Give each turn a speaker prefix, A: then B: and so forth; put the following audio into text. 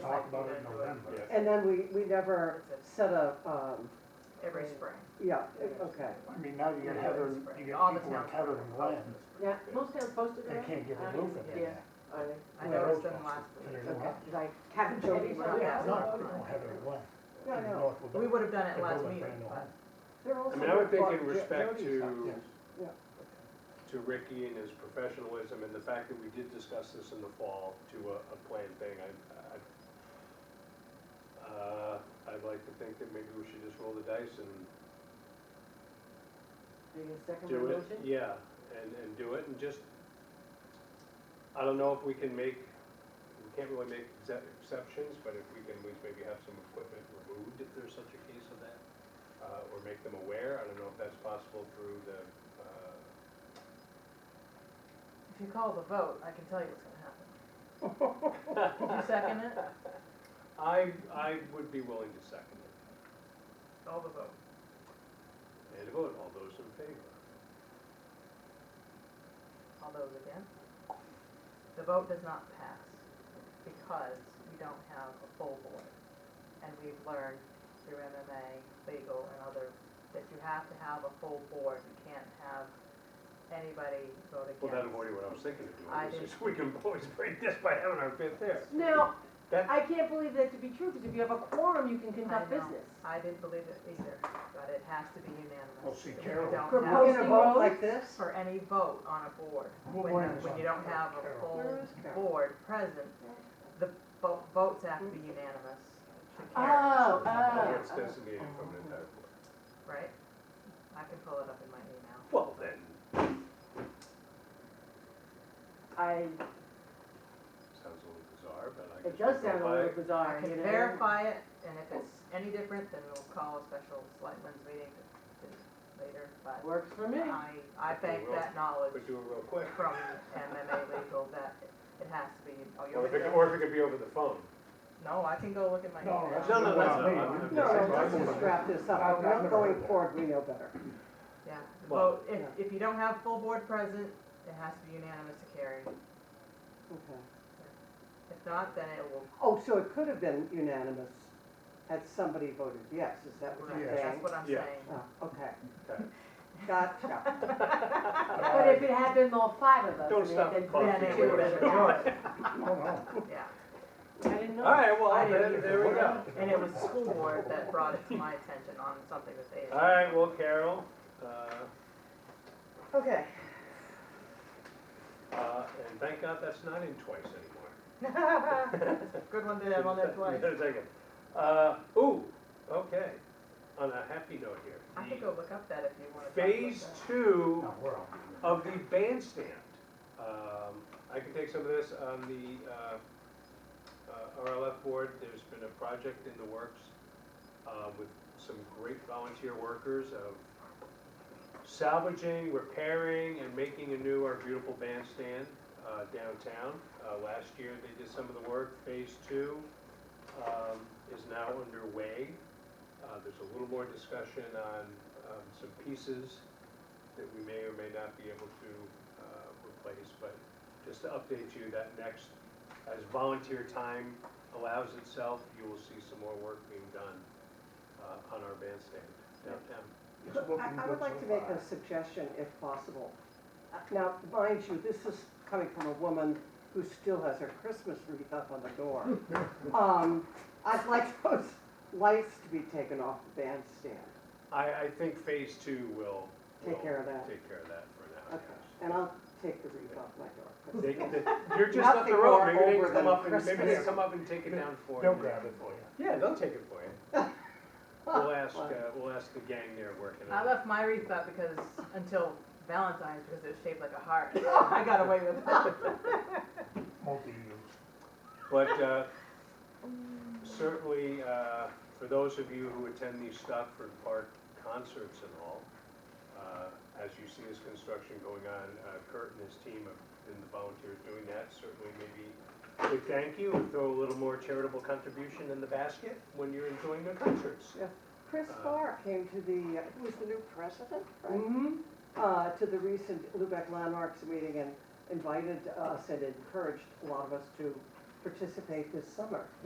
A: talked about it in November.
B: And then we, we never set a, um,
C: every spring.
B: yeah, okay.
A: I mean, now you get Heather, you get
C: All the
A: people like
C: towns.
A: Heather and Glenn,
D: Yeah, most towns posted
A: they
D: it.
A: can't get a
D: I
A: roof
D: don't
A: in
D: see it.
A: there.
D: Are they?
C: I
A: Well,
C: noticed them
A: that's-
C: last
A: Yeah,
C: week.
A: you're right.
D: Like Cap and
C: Jody
D: Jody
C: went
D: went
C: out.
D: out.
A: No, no, Heather and Glenn.
B: Yeah, I
A: You
B: know.
A: know, if
C: We would have done it
A: They're
C: last
A: both
C: meeting,
A: brand new.
C: but
B: They're also
E: I mean, I would think in
B: Jody-
E: respect
B: Jody's house.
E: to,
B: Yeah.
E: to Ricky and his professionalism and the fact that we did discuss this in the fall to a, a plan thing, I, I, uh, I'd like to think that maybe we should just roll the dice and
D: Are you gonna second my
E: do it.
D: motion?
E: Yeah, and, and do it and just, I don't know if we can make, we can't really make exce- exceptions, but if we can, at least maybe have some equipment removed if there's such a case of that. Uh, or make them aware, I don't know if that's possible through the, uh,
C: if you call the vote, I can tell you what's gonna happen. Did you second it?
E: I, I would be willing to second it.
C: All the vote.
E: And a vote, all those in favor?
C: All those again? The vote does not pass because we don't have a full board. And we've learned through MMA, legal and other, that you have to have a full board. You can't have anybody vote against.
E: Well, that avoided what I was thinking of
C: I did.
E: doing, is just we can always break this by having our fifth there.
D: Now,
E: That-
D: I can't believe that to be true, because if you have a quorum, you can conduct
C: know.
D: business.
C: I didn't believe it either, but it has to be unanimous.
A: Well, Oh, see,
C: If you
A: Carol-
C: don't
D: We're
C: have-
B: We're gonna
D: Posting
B: vote
D: roads?
B: like this?
C: for any vote on a board.
A: We'll
C: When,
A: blame this
C: when you
A: on
C: don't have a
A: Carol.
C: full
B: Where is Carol?
C: board present, the vo- votes have to be unanimous to carry,
D: Oh,
E: Where it's
D: oh.
E: designated from an entire board.
C: right? I can pull it up in my email.
E: Well, then,
D: I,
E: sounds a little bizarre, but I guess.
D: it does
E: we'll
D: sound a
E: go
D: little
E: by-
D: bizarre,
C: I
D: you
C: can
D: know?
C: verify it, and if it's any different, then we'll call a special selectmen's meeting to- to later, but
D: Works for me.
C: I, I bank that knowledge
E: But do it real quick.
C: from MMA legal that it has to be, oh,
E: Or
C: you're.
E: if it, could- or if it could be over the phone.
C: No, I can go look at my
A: No,
C: email.
A: that's
E: No, no,
A: what
E: that's
A: I
E: not-
A: mean.
E: I'm- I'm
B: No,
E: just-
B: no, let's just wrap this up.
A: I've- I've
B: We're
A: never
B: going
A: heard that.
B: forward, we know better.
C: Yeah, the
E: Well-
C: vote, if, if you don't have full board present, it has to be unanimous to carry.
B: Okay.
C: If not, then it will,
B: Oh, so it could have been unanimous had somebody voted yes, is that what you're saying?
C: that's what I'm
E: Yeah.
C: saying.
B: Oh, okay.
E: Okay.
B: Gotcha.
D: But if it had been all five of us,
E: Don't
D: I mean,
E: stop
D: then
E: the clock.
D: then it
C: Yeah,
D: would've
C: yeah,
D: been-
A: No, no.
C: Yeah,
D: I didn't know.
E: All right, well,
C: I
E: then,
C: didn't
E: there we go.
C: and it was the school board that brought it to my attention on something that they
E: All
C: had.
E: right, well, Carol, uh,
B: Okay.
E: uh, and thank God that's not in twice anymore.
C: Good one to have on that twice.
E: Just a second. Uh, ooh, okay, on a happy note here.
C: I could go look up that if you wanna talk about that. Oh.
E: Phase two
A: No, we're all.
E: of the bandstand. Um, I can take some of this on the, uh, uh, RLF board, there's been a project in the works, uh, with some great volunteer workers of salvaging, repairing, and making anew our beautiful bandstand, uh, downtown. Uh, last year, they did some of the work, phase two, um, is now underway. Uh, there's a little more discussion on, um, some pieces that we may or may not be able to uh, replace, but just to update you, that next, as volunteer time allows itself, you will see some more work being done uh, on our bandstand downtown.
A: It's looking
B: I, I
A: good
B: would like
A: so
B: to make
A: far.
B: a suggestion if possible. Uh, Now, mind you, this is coming from a woman who still has her Christmas wreath up on the door. Um, I'd like those lights to be taken off the bandstand.
E: I, I think phase two will.
B: Take
E: will
B: care of that.
E: Take care of that for now,
B: Okay,
E: yes.
B: and I'll take the wreath off my door.
E: They can- they- You're just up
B: Nothing
E: the road,
B: more
E: maybe they
B: over
E: can come
B: than
E: up and, maybe they
B: Christmas.
E: come up and take it down for you.
A: They'll grab it for you.
E: Yeah, they'll take it for you. We'll ask, uh, we'll ask the gang there working
C: I
E: on it.
C: left my wreath up because, until Valentine's, because it was shaped like a heart. I got away with it.
A: Multi-use.
E: But uh, certainly, uh, for those of you who attend these Stockford Park concerts and all, uh, as you see this construction going on, uh, Kurt and his team have been the volunteers doing that, certainly maybe we thank you and throw a little more charitable contribution in the basket when you're enjoying their concerts.
B: Chris
E: Uh,
B: Farr came to the, uh, who was the new president, right?
D: Mm-hmm.
B: uh, to the recent Lubec Landmarks meeting and invited us and encouraged a lot of us to participate this summer.